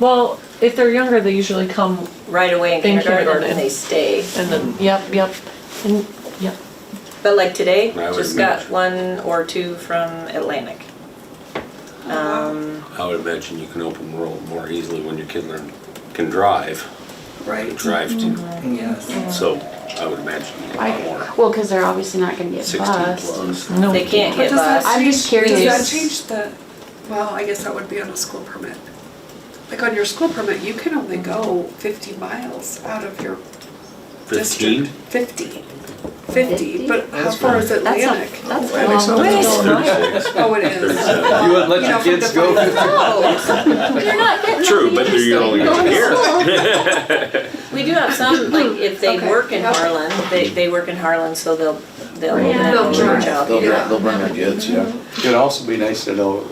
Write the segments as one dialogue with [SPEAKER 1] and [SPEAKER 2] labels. [SPEAKER 1] Well, if they're younger, they usually come
[SPEAKER 2] right away in
[SPEAKER 1] In
[SPEAKER 2] kindergarten
[SPEAKER 1] kindergarten.
[SPEAKER 2] and they stay.
[SPEAKER 1] and then, yep, yep, and, yep.
[SPEAKER 2] But like today,
[SPEAKER 3] I would
[SPEAKER 2] just got
[SPEAKER 3] imagine.
[SPEAKER 2] one or two from Atlantic.
[SPEAKER 4] Oh,
[SPEAKER 2] Um,
[SPEAKER 3] I would imagine you can open world more easily when your kid learn, can drive,
[SPEAKER 4] Right.
[SPEAKER 3] drive to,
[SPEAKER 4] Yes.
[SPEAKER 3] so I would imagine you get
[SPEAKER 5] I,
[SPEAKER 3] a lot more.
[SPEAKER 5] well, because they're obviously not going to get
[SPEAKER 3] Sixteen
[SPEAKER 5] bussed.
[SPEAKER 3] plus.
[SPEAKER 1] No,
[SPEAKER 2] They can't
[SPEAKER 4] But
[SPEAKER 2] get
[SPEAKER 4] does that
[SPEAKER 2] bus.
[SPEAKER 5] I'm just
[SPEAKER 4] change-
[SPEAKER 5] curious.
[SPEAKER 4] Does that change the, well, I guess that would be on a school permit. Like on your school permit, you can only go fifty miles out of your district.
[SPEAKER 3] Fifteen?
[SPEAKER 4] Fifty.
[SPEAKER 5] Fifty?
[SPEAKER 4] Fifty, but how
[SPEAKER 6] That's
[SPEAKER 4] far is
[SPEAKER 5] That's a-
[SPEAKER 4] Atlantic?
[SPEAKER 5] that's a
[SPEAKER 6] Atlantic's
[SPEAKER 5] long
[SPEAKER 6] not
[SPEAKER 5] way.
[SPEAKER 6] that
[SPEAKER 3] Thirty-six.
[SPEAKER 4] Oh, it is.
[SPEAKER 3] Thirty-seven.
[SPEAKER 6] You wouldn't let
[SPEAKER 4] You
[SPEAKER 6] your
[SPEAKER 4] know, from
[SPEAKER 6] kids
[SPEAKER 4] the
[SPEAKER 6] go
[SPEAKER 4] five-
[SPEAKER 6] fifty?
[SPEAKER 2] Um,
[SPEAKER 5] You're not getting
[SPEAKER 3] True,
[SPEAKER 5] off
[SPEAKER 3] but
[SPEAKER 5] the
[SPEAKER 3] they're your only
[SPEAKER 5] interstate.
[SPEAKER 3] here.
[SPEAKER 2] We do have some, like if they
[SPEAKER 4] Okay.
[SPEAKER 2] work in
[SPEAKER 4] Yep.
[SPEAKER 2] Harlan, they, they work in Harlan, so they'll, they'll open
[SPEAKER 5] Yeah.
[SPEAKER 2] it
[SPEAKER 4] They'll
[SPEAKER 2] up for a
[SPEAKER 4] drive.
[SPEAKER 2] job.
[SPEAKER 6] They'll, bring- they'll bring their kids, yeah. It'd also be nice to know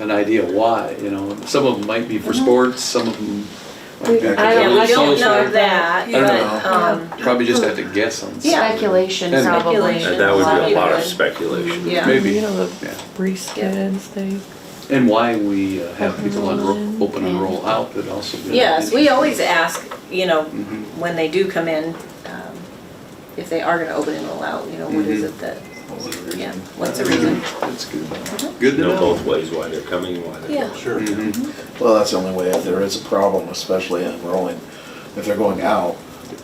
[SPEAKER 6] an idea why, you know, some of them might be for sports, some of them might be.
[SPEAKER 2] Yeah,
[SPEAKER 5] I don't-
[SPEAKER 2] we
[SPEAKER 5] I
[SPEAKER 2] don't
[SPEAKER 5] don't
[SPEAKER 2] know that,
[SPEAKER 4] I
[SPEAKER 6] don't
[SPEAKER 2] but,
[SPEAKER 6] know.
[SPEAKER 2] um,
[SPEAKER 6] Probably just have to guess on. some.
[SPEAKER 2] Yeah.
[SPEAKER 5] Speculation,
[SPEAKER 6] And-
[SPEAKER 5] probably.
[SPEAKER 2] Speculation.
[SPEAKER 3] And that would be a lot of
[SPEAKER 2] Yeah.
[SPEAKER 3] speculation.
[SPEAKER 2] yeah.
[SPEAKER 6] Maybe.
[SPEAKER 1] You know, the
[SPEAKER 6] Yeah.
[SPEAKER 1] Reese
[SPEAKER 2] Yeah.
[SPEAKER 1] kids, they,
[SPEAKER 6] And why we uh, have people on
[SPEAKER 1] Mhm.
[SPEAKER 6] ro- open and roll out would also be.
[SPEAKER 2] Yes, we always ask, you know,
[SPEAKER 6] Mhm.
[SPEAKER 2] when they do come in, um, if they are gonna open and roll out, you know, what is
[SPEAKER 6] Mhm.
[SPEAKER 2] it that, yeah,
[SPEAKER 6] That's
[SPEAKER 2] what's the reason?
[SPEAKER 6] good. Good to
[SPEAKER 3] Know
[SPEAKER 6] know.
[SPEAKER 3] both ways why they're coming, why they're
[SPEAKER 2] Yeah.
[SPEAKER 3] going.
[SPEAKER 7] Sure.
[SPEAKER 6] Mhm.
[SPEAKER 7] Well, that's the only way, if there is a problem, especially enrolling, if they're going out,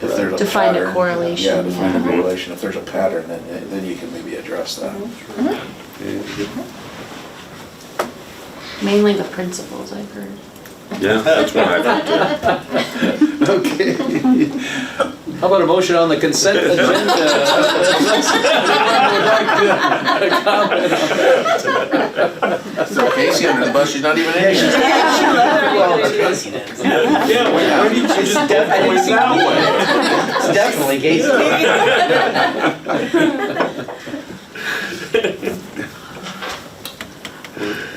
[SPEAKER 7] if there's a
[SPEAKER 5] To find a
[SPEAKER 7] pattern.
[SPEAKER 5] correlation,
[SPEAKER 7] Yeah, to find
[SPEAKER 5] yeah.
[SPEAKER 7] a correlation, if there's a pattern, then, then you can maybe address that.
[SPEAKER 6] Yeah, good.
[SPEAKER 5] Mainly the principals, I've heard.
[SPEAKER 3] Yeah, that's what I thought too.
[SPEAKER 6] Okay. How about a motion on the consent agenda?
[SPEAKER 7] So Casey on the bus, she's not even in.
[SPEAKER 3] Yeah,
[SPEAKER 7] why- why
[SPEAKER 3] did you just
[SPEAKER 8] Definitely Casey.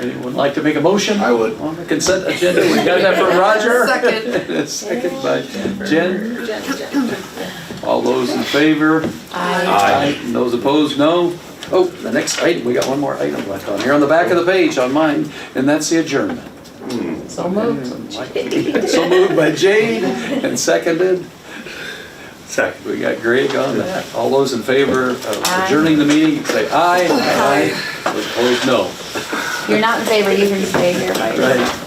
[SPEAKER 6] Anyone like to make a motion?
[SPEAKER 7] I would.
[SPEAKER 6] On the consent agenda, we got that from Roger.
[SPEAKER 4] Second.
[SPEAKER 6] Second by Jen. All those in favor?
[SPEAKER 3] Uh,
[SPEAKER 6] Aye. And Those opposed, no. Oh, the next item, we got one more item left on here, on the back of the page on mine, and that's the adjournment.
[SPEAKER 1] so moved.
[SPEAKER 6] So moved by Jade and seconded. Second. We got Greg on that. All those in favor of adjourning the meeting, say aye. Aye. Those Opposed, no.
[SPEAKER 5] You're not in favor either, you stay here by yourself.
[SPEAKER 6] Right.